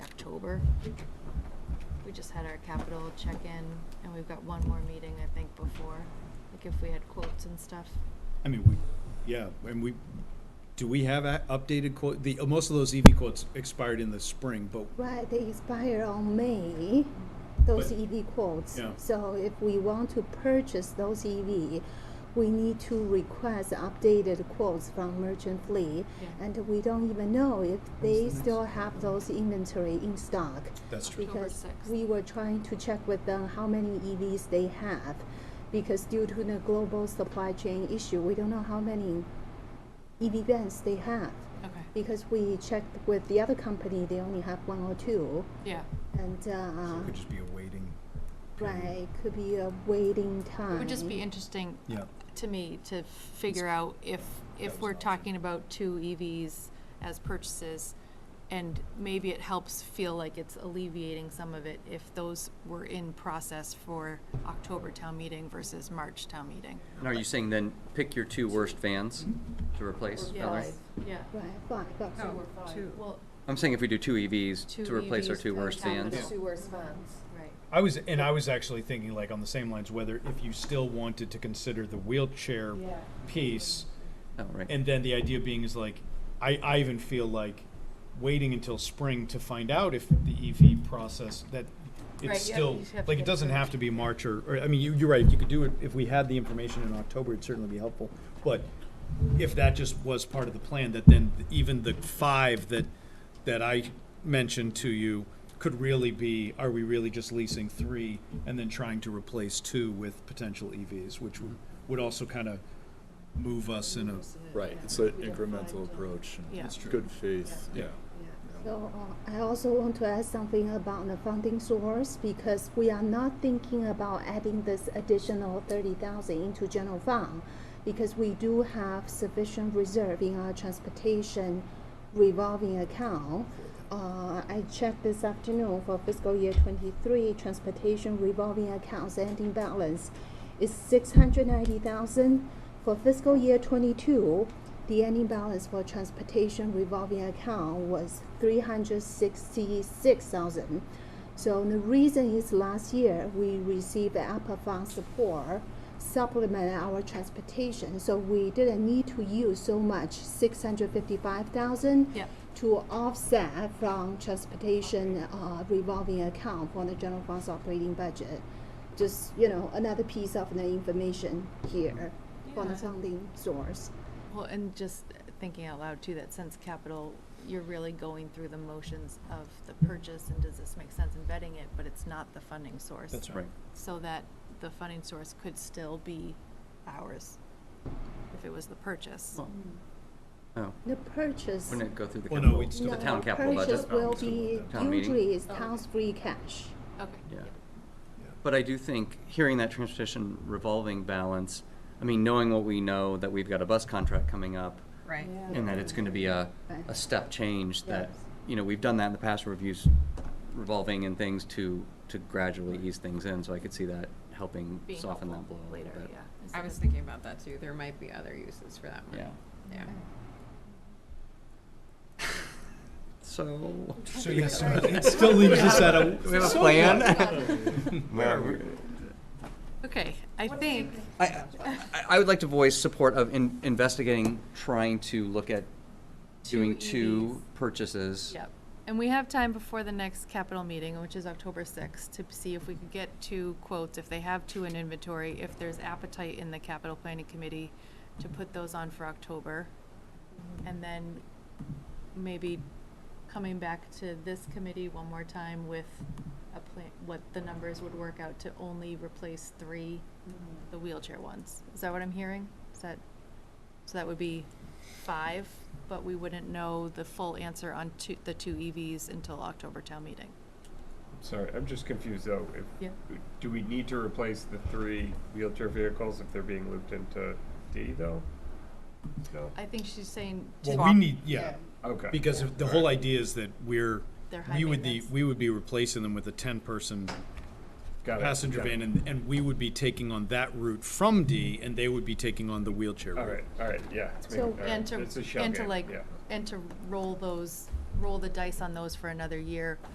October. We just had our capital check-in and we've got one more meeting, I think, before, like if we had quotes and stuff. I mean, we, yeah, and we, do we have a- updated quote, the, uh, most of those EV quotes expired in the spring, but Right, they expire on May, those But- EV quotes. Yeah. So if we want to purchase those EV, we need to request updated quotes from merchant fleet. Yeah. And we don't even know if they next still have those inventory in stock. that's true. October Because 6th. we were trying to check with them how many EVs they have. Because due to the global supply chain issue, we don't know how many EV vans they have. Okay, Because we checked with the other company, they only have one or two, yeah. and, So it uh, could just be a waiting. period. right, could be a waiting time. It would just be interesting Yeah, to me to figure out if, That was if an we're option. talking about two EVs as purchases, and maybe it helps feel like it's alleviating some of it if those were in process for October town meeting versus March town meeting. And are you saying then pick your two worst vans Mm-hmm. to replace? Yeah, Ellen? Yeah, Right, five, Oh, but well, I'm saying if we do two EVs Two to replace our EVs two per worst capital. vans. Yeah. Sewer funds. right. I was, and I was actually thinking like on the same lines, whether if you still wanted to consider the wheelchair Yeah. piece, Oh, right. and then the idea being is like, I, I even feel like waiting until spring to find out if the EV process, that Right, you have- it's still, you just have to like, get it doesn't have approved. to be March or, or, I mean, you, you're right, you could do it, if we had the information in October, it'd certainly be helpful. But if that just was part of the plan, that then even the five that, that I mentioned to you could really be, are we really just leasing three and then trying to replace two with potential EVs, which would, would also kind of move us in a, Right, it's an incremental approach. and Yeah. It's good faith, yeah. So uh, I also want to add something about the funding source because we are not thinking about adding this additional thirty thousand into general fund because we do have sufficient reserve in our transportation revolving account. Uh, I checked this afternoon for fiscal year twenty-three transportation revolving accounts ending balance is six hundred ninety thousand. For fiscal year twenty-two, the ending balance for transportation revolving account was three hundred sixty-six thousand. So the reason is last year, we received APA fund support supplement our transportation, so we didn't need to use so much, six hundred fifty-five thousand Yeah. to offset from transportation uh, revolving account for the general funds operating budget. Just, you know, another piece of the information here for Yeah. the funding source. Well, and just thinking out loud too, that since capital, you're really going through the motions of the purchase and does this make sense in vetting it, but it's not the funding source. that's Right. So that the funding source could still be ours if it was the purchase. Well, Oh, The purchase. wouldn't it go through the Well, no, capital? we'd still- The No, town capital budget. Oh, Purchase will still be, with Town meeting. usually is Oh. town's free cash. Okay. Yeah. Yeah. But I do think, hearing that transportation revolving balance, I mean, knowing what we know, that we've got a bus contract coming up, Right. and that it's gonna be a, Right. a step change that, Yes. you know, we've done that in the past, reviews revolving and things to, to gradually ease things in, so I could see that helping Being soften that helpful blow a little later, bit. yeah. I instead was of- thinking about that too. There might be other uses for that money. Yeah. Yeah. So. So yes, so it still leaves us at a. We have a so plan? Um, Okay, I think, I, I- I would like to voice support of in- investigating, trying to look at Two E doing two EVs. purchases. yep. And we have time before the next capital meeting, which is October sixth, to see if we could get two quotes, if they have two in inventory, if there's appetite in the capital planning committee to put those on for October. And then maybe coming back to this committee one more time with a plan, what the numbers would work out to only replace three, the wheelchair ones. Is that what I'm hearing? Is that, so that would be five, but we wouldn't know the full answer on two, the two EVs until October town meeting. Sorry, I'm just confused though. If, Yeah. Do we need to replace the three wheelchair vehicles if they're being looped into D though? No? I think she's saying to Well, we need, yeah, Okay. because if the whole idea is that we're, They're high we would the, maintenance. we would be replacing them with a ten-person Got it, passenger got it. van, and, and we would be taking on that route from D, and they would be taking on the wheelchair All route. right, all right, yeah. it's So- making- all right, and to, it's a shell and to game, like, yeah. and to roll those, roll the dice on those for another year